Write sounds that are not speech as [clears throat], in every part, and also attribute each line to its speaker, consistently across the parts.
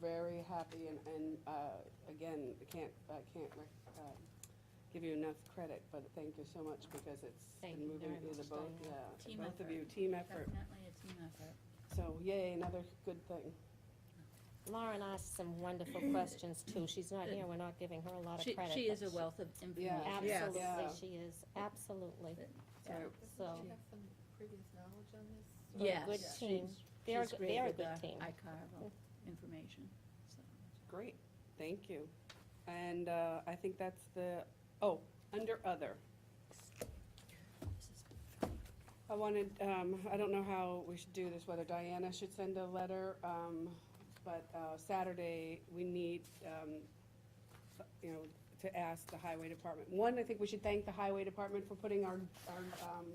Speaker 1: very happy and, and, uh, again, I can't, I can't, rec- uh, give you enough credit, but thank you so much because it's
Speaker 2: Thank
Speaker 1: been
Speaker 2: you
Speaker 1: moving
Speaker 2: very
Speaker 1: through the
Speaker 2: much,
Speaker 1: both,
Speaker 2: Diane.
Speaker 1: yeah,
Speaker 3: Team
Speaker 1: both of
Speaker 3: effort.
Speaker 1: you, team effort.
Speaker 3: Definitely a team effort.
Speaker 1: So yay, another good thing.
Speaker 2: Lauren asked
Speaker 1: [clears throat]
Speaker 2: some wonderful questions too. She's not here, we're not giving her a lot
Speaker 3: She,
Speaker 2: of credit.
Speaker 3: she is
Speaker 2: but
Speaker 3: a wealth of
Speaker 1: Yeah.
Speaker 3: information.
Speaker 4: Yes.
Speaker 2: Absolutely,
Speaker 1: Yeah.
Speaker 2: she is, absolutely.
Speaker 1: So,
Speaker 2: So-
Speaker 5: Doesn't she have some previous knowledge on this?
Speaker 2: But a
Speaker 3: Yes.
Speaker 2: Good
Speaker 3: She's-
Speaker 2: team. They're, a
Speaker 3: she's
Speaker 2: g-
Speaker 3: great
Speaker 2: they're a
Speaker 3: with
Speaker 2: good
Speaker 3: the
Speaker 2: team.
Speaker 3: iCarve information, so.
Speaker 1: great, thank you. And, uh, I think that's the, oh, under other. I wanted, um, I don't know how we should do this, whether Diana should send a letter, um, but, uh, Saturday, we need, um, you know, to ask the highway department. One, I think we should thank the highway department for putting our, our, um,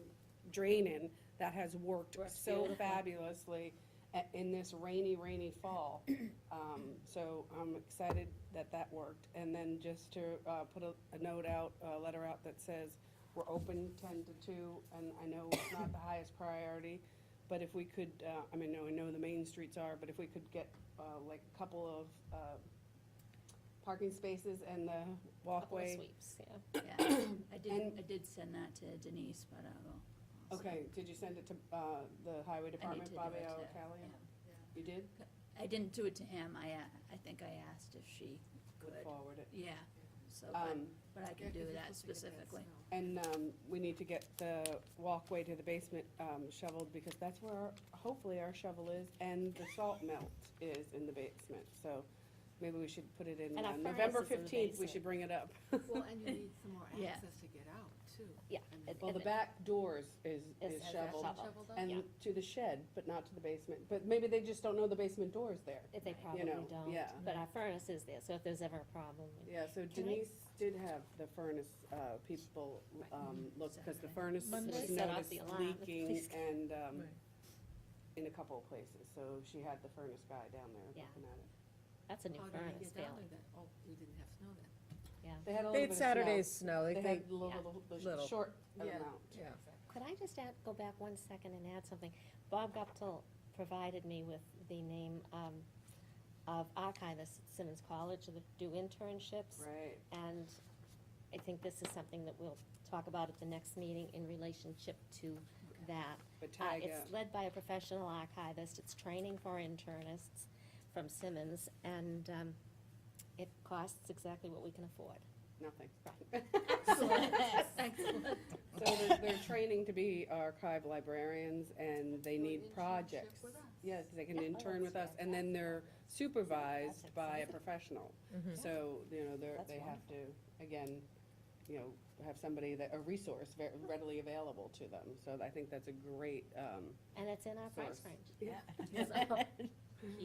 Speaker 1: drain in. That has worked
Speaker 3: Works
Speaker 1: so
Speaker 2: [laughs]
Speaker 3: beautiful.
Speaker 1: fabulously a- in this rainy, rainy
Speaker 2: [clears throat]
Speaker 1: fall. Um, so I'm excited that that worked. And then just to, uh, put a, a note out, a letter out that says, we're open ten to two, and I know it's not the highest priority, but if we could, uh, I mean, I know the main streets are, but if we could get, uh, like a couple of, uh, parking spaces and the
Speaker 2: Couple of
Speaker 1: walkway.
Speaker 2: sweeps, yeah.
Speaker 3: Yeah, I did,
Speaker 1: And-
Speaker 3: I did send that to Denise, but I will. also-
Speaker 1: Okay, did you send it to, uh, the highway
Speaker 3: I need to
Speaker 1: department,
Speaker 3: do
Speaker 1: Bobby
Speaker 3: it to-
Speaker 1: O'Callaghan?
Speaker 3: yeah.
Speaker 1: You did?
Speaker 3: I didn't do it to him, I, a- I think I asked if she could,
Speaker 1: Forward it.
Speaker 3: yeah, so, but,
Speaker 1: Um,
Speaker 3: but I can do
Speaker 2: [laughs]
Speaker 3: that specifically.
Speaker 1: and, um, we need to get the walkway to the basement, um, shoveled, because that's where, our- hopefully our shovel is, and the salt melt is in the basement, so maybe we should put it in,
Speaker 2: And our
Speaker 1: uh, November
Speaker 2: furnace is in the
Speaker 1: fifteenth, we
Speaker 2: basement.
Speaker 1: should bring it up. [laughs]
Speaker 5: Well, and you need some more
Speaker 3: Yeah.
Speaker 5: access to get out, too.
Speaker 2: Yeah,
Speaker 5: I mean,
Speaker 2: it-
Speaker 1: Well, the
Speaker 2: it-
Speaker 1: back doors is,
Speaker 2: Is-
Speaker 1: is
Speaker 2: has a
Speaker 1: shoveled,
Speaker 2: shovel.
Speaker 5: Shoveled up? oh,
Speaker 1: and
Speaker 2: yeah.
Speaker 1: to the shed, but not to the basement, but maybe they just don't know the basement door's there.
Speaker 2: If They probably
Speaker 1: You know,
Speaker 2: don't,
Speaker 1: yeah.
Speaker 2: but our furnace is there, so if there's ever a problem.
Speaker 1: Yeah, so
Speaker 2: I-
Speaker 1: Denise did have the furnace, uh, people, um,
Speaker 4: Mm-hmm.
Speaker 1: look, because the furnace
Speaker 2: Monday.
Speaker 1: was
Speaker 2: Set off
Speaker 1: noticed
Speaker 2: the alarm.
Speaker 1: leaking
Speaker 2: Please.
Speaker 1: and, um,
Speaker 4: Right.
Speaker 1: in a couple of places, so she had the furnace guy down there
Speaker 2: Yeah.
Speaker 1: looking at it.
Speaker 2: That's a new
Speaker 5: How did we
Speaker 2: furnace
Speaker 5: get down
Speaker 2: failing.
Speaker 5: there then? Oh, we didn't have snow then.
Speaker 1: They had a
Speaker 4: They
Speaker 1: little bit
Speaker 4: had
Speaker 1: of snow.
Speaker 4: Saturday's snow,
Speaker 1: They
Speaker 4: they,
Speaker 1: had
Speaker 4: [laughs] they,
Speaker 1: little,
Speaker 2: Yeah.
Speaker 1: little, little,
Speaker 4: Little.
Speaker 1: short
Speaker 5: Yeah.
Speaker 1: amount.
Speaker 4: yeah.
Speaker 2: Could I just add, go back one second and add something? Bob Guptill provided me with the name um, of archivists at Simmons College that do internships.
Speaker 1: Right,
Speaker 2: And I think this is something that we'll talk about at the next meeting in relationship to that.
Speaker 1: but
Speaker 2: Uh,
Speaker 1: Tyga,
Speaker 2: It's led by a professional archivist, it's training for internists from Simmons, and um, it costs exactly what we can afford.
Speaker 1: nothing. [laughs]
Speaker 3: Excellent.
Speaker 1: So they're, they're training to be archive librarians and they
Speaker 5: Do an
Speaker 1: need
Speaker 5: internship
Speaker 1: projects.
Speaker 5: with us.
Speaker 1: Yes, they can
Speaker 2: Yeah, oh,
Speaker 1: intern with us
Speaker 2: that's
Speaker 1: and then they're supervised
Speaker 2: That's
Speaker 1: by a
Speaker 2: exciting.
Speaker 1: professional.
Speaker 4: Mm-hmm.
Speaker 1: So, you know, they're,
Speaker 2: That's
Speaker 1: they have to, again, you know, have somebody that, a resource ve- readily available to them. So I think that's a great, um,
Speaker 2: And it's in our price
Speaker 1: Source.
Speaker 2: range. [laughs]
Speaker 3: [laughs]
Speaker 1: Yeah.
Speaker 5: Um,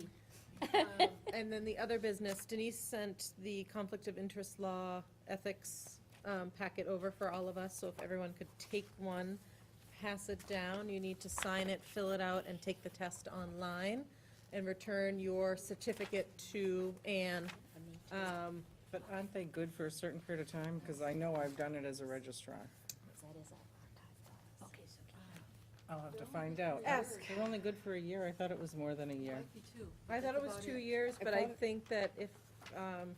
Speaker 4: And then the other business, Denise sent the conflict of interest law ethics um, packet over for all of us, so if everyone could take one, pass it down, you need to sign it, fill it out, and take the test online, and return your certificate to Anne. Um,
Speaker 6: But aren't they good for a certain period of time? Because I know I've done it as a registrar.
Speaker 2: That is our archive.
Speaker 3: Okay, so, uh,
Speaker 6: I'll have to find out.
Speaker 4: Ask.
Speaker 6: They're only good for a year. I thought it was more than a year.
Speaker 5: Might be two.
Speaker 4: I thought it was
Speaker 5: That's
Speaker 4: two
Speaker 5: about
Speaker 4: years,
Speaker 1: I
Speaker 4: but I
Speaker 1: thought it-
Speaker 4: think that if, um,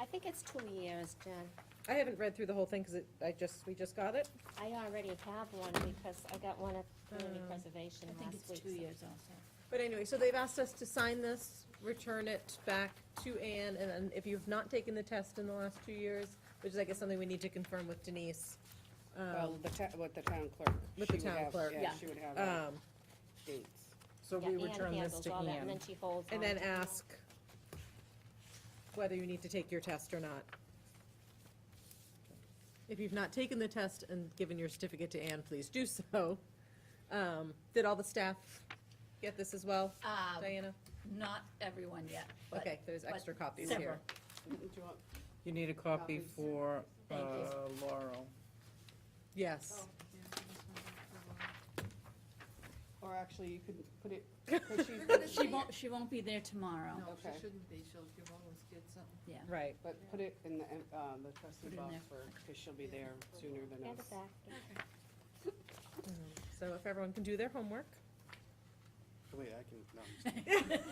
Speaker 2: I think it's two years, Jen.
Speaker 4: I haven't read through the whole thing, because I just, we just got it.
Speaker 2: I already have one because I got one at community
Speaker 4: Um,
Speaker 2: preservation
Speaker 3: Uh, I think
Speaker 2: last
Speaker 3: it's
Speaker 2: week.
Speaker 3: two
Speaker 2: so-
Speaker 3: years also.
Speaker 4: But anyway, so they've asked us to sign this, return it back to Anne, and then if you've not taken the test in the last two years, which is, I guess, something we need to confirm with Denise.
Speaker 1: well,
Speaker 4: um,
Speaker 1: the ta- with the town clerk.
Speaker 4: With the
Speaker 1: she would
Speaker 4: town
Speaker 1: have-
Speaker 4: clerk.
Speaker 1: Yeah,
Speaker 2: Yeah.
Speaker 1: she would have uh,
Speaker 4: um,
Speaker 1: dates.
Speaker 6: So
Speaker 2: Yeah,
Speaker 6: we
Speaker 2: Ann
Speaker 6: return this
Speaker 2: handles
Speaker 6: to
Speaker 2: all that, And
Speaker 6: Ann.
Speaker 2: then she holds.
Speaker 4: And
Speaker 2: on
Speaker 4: then
Speaker 2: to it.
Speaker 4: ask whether you need to take your test or not. If you've not taken the test and given your certificate to Anne, please do so. Um, Did all the staff get this as well,
Speaker 3: Um,
Speaker 4: Diana?
Speaker 3: Not everyone yet, but
Speaker 4: Okay, there's
Speaker 3: but
Speaker 4: extra copies
Speaker 3: several.
Speaker 4: here.
Speaker 1: Do you want-
Speaker 6: You need a copy
Speaker 1: Copies.
Speaker 6: for uh,
Speaker 3: Thank you.
Speaker 6: Laurel.
Speaker 4: Yes.
Speaker 5: Oh, yeah, this one was
Speaker 1: Or actually, you could put it, could she,
Speaker 3: She won't, she won't be there tomorrow.
Speaker 5: for- No,
Speaker 1: Okay.
Speaker 5: she shouldn't be, she'll give all those kids something.
Speaker 4: Right.
Speaker 1: but put it in the, uh, the trustee
Speaker 3: Put it in
Speaker 1: box
Speaker 3: there.
Speaker 1: for, because she'll be there sooner than
Speaker 2: Hand
Speaker 1: us.
Speaker 2: it back.
Speaker 4: So if everyone can do their homeworc.
Speaker 7: Wait, I can, no. I'm just-